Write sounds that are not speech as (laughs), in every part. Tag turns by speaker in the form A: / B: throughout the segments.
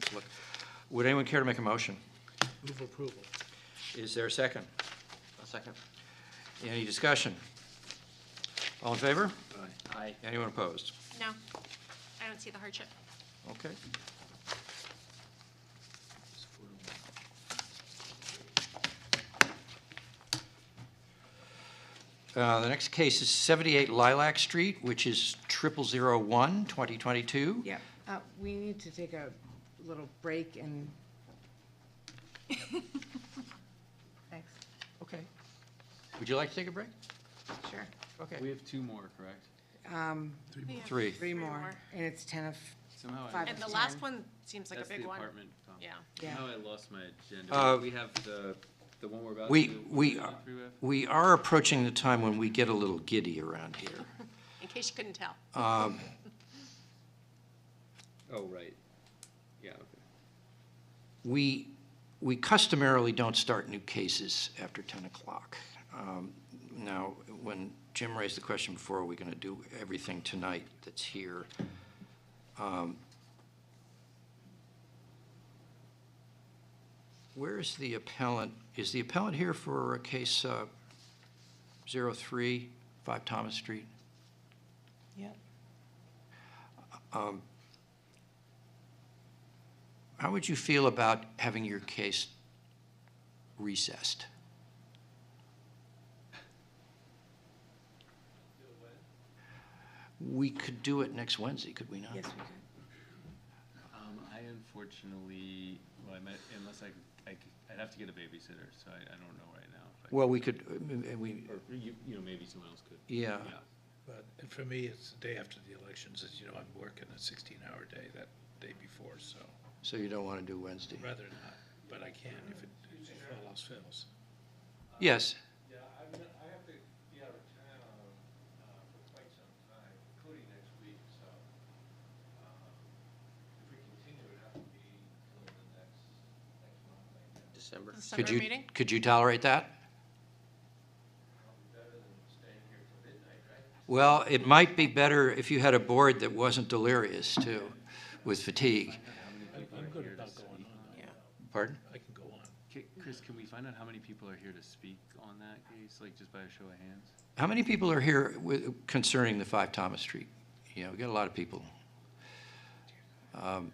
A: just look. Would anyone care to make a motion?
B: Move approval.
A: Is there a second?
C: A second.
A: Any discussion? All in favor?
C: Aye.
A: Anyone opposed?
D: No, I don't see the hardship.
A: Okay. Uh, The next case is 78 Lilac Street, which is 0001, 2022.
E: Yeah, uh, we need to take a little break (laughs) and. Thanks,
A: Okay. Would you like to take a break?
E: sure.
A: Okay.
C: We have two more, correct?
E: Um,
A: Three.
E: three more, and it's ten of,
C: Somehow I.
E: Five.
D: And the
E: Ten.
D: last one seems like a
C: That's
D: big
C: the
D: one.
C: apartment. complex.
D: Yeah.
E: Yeah.
C: Somehow I lost my
A: Uh,
C: agenda. We have the, the one we're about to.
A: We,
C: do-
A: we,
C: do
A: are-
C: three with?
A: we are approaching the time when we get a little giddy around here.
D: In case you couldn't tell.
C: Oh, right. Yeah, okay.
A: We, we customarily don't start new cases after 10 o'clock. Um, Now, when Jim raised the question before, are we going to do everything tonight that's here? Um, Where is the appellant? Is the appellant here for a case uh, 03, 5 Thomas Street?
E: yeah,
A: Um, How would you feel about having your case recessed? We could do it next Wednesday, could we not?
E: yes, we could.
C: Um, I unfortunately, well, I might, unless I, I, c- I'd have to get a babysitter, so I, I don't know right now. if I
A: Well, we could, uh, uh, we,
C: could- Or, you, you know, maybe someone else could.
A: yeah.
B: But and for me, it's the day after the elections, as you know, I'm working a sixteen-hour day that day before, so
A: So you don't want to do Wednesday?
B: rather not, but I can if it, if all else fails.
A: Yes,
F: Yeah, I'm, not- I have to be out of town, uh, for quite some time, including next week, so, um, if we continue, it'd have to be till the next, next month, I guess,
C: December.
A: could
D: December
A: you,
D: meeting?
A: could you tolerate that?
F: probably better than staying here till midnight, right?
A: Well, it might be better if you had a board that wasn't delirious, too, with fatigue.
B: I'm good about going on,
A: Pardon?
B: I can go on.
C: Ca- Chris, can we find out how many people are here to speak on that case, like just by a show of hands?
A: How many people are here wi- concerning the 5 Thomas Street? You know, we got a lot of people. Um,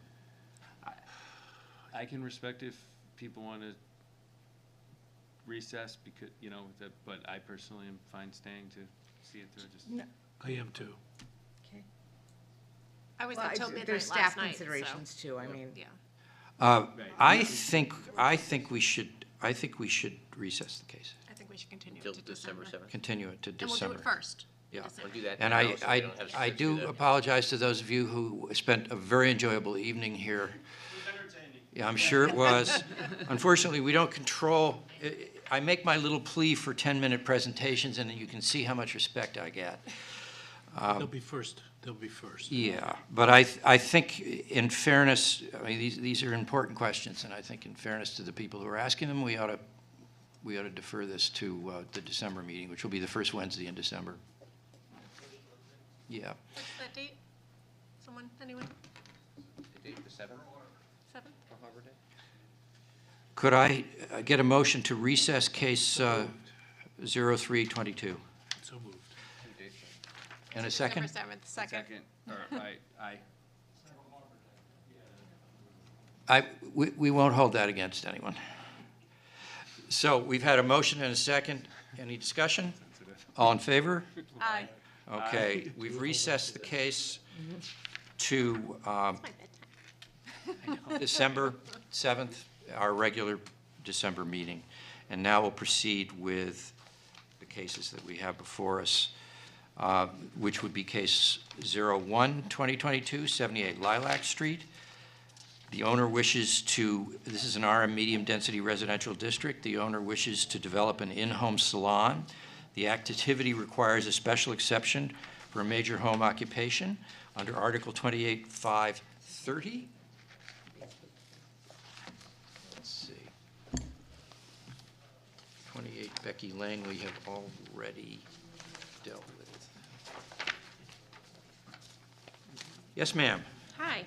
C: I can respect if people want to recess because, you know, that, but I personally am fine staying to see it through, just.
B: I am too.
E: Okay.
D: I was
E: Well,
D: until
E: it's-
D: midnight
E: There's
D: last night.
E: staff
D: so-
E: considerations too, I mean,
D: Yeah.
A: uh,
C: Right.
A: I think, I think we should, I think we should recess the case,
D: I think we should continue it
G: Till
D: to
G: December
D: December.
G: 7th.
A: continue it to
D: And we'll do
A: December.
D: it first. in
A: Yeah.
D: December.
G: We'll do that.
A: And
G: now,
A: I,
G: so we
A: I,
G: don't have to
A: I
G: sit through
A: do
G: that.
A: apologize to those of you who spent a very enjoyable evening here. Yeah, I'm sure it
G: (laughs)
A: was. Unfortunately, we don't control, I- I make my little plea for 10-minute presentations, and you can see how much respect I get.
B: They'll be first, they'll be first.
A: Yeah, but I, th- I think in fairness, I mean, these, these are important questions, and I think in fairness to the people who are asking them, we ought to, we ought to defer this to uh, the December meeting, which will be the first Wednesday in December. Yeah,
D: What's that date? Someone, anyone?
G: The date, the seventh
D: Seven?
G: of Harbor Day?
A: could I uh, get a motion to recess case uh, 0322?
B: So moved.
G: Two dates.
A: And a second?
D: December seventh, second.
C: or I, I,
A: I, we, we won't hold that against anyone. So we've had a motion and a second. Any discussion? All in favor?
D: Aye.
A: Okay, we've recessed the case to um,
D: My bedtime.
A: December 7th, our regular December meeting. And now we'll proceed with the cases that we have before us, uh, which would be case 01, 2022, 78 Lilac Street. The owner wishes to, this is an RM medium-density residential district. The owner wishes to develop an in-home salon. The activity requires a special exception for a major home occupation under Article 28.530. Let's see. 28 Becky Lane, we have already dealt with. Yes, ma'am.
D: Hi,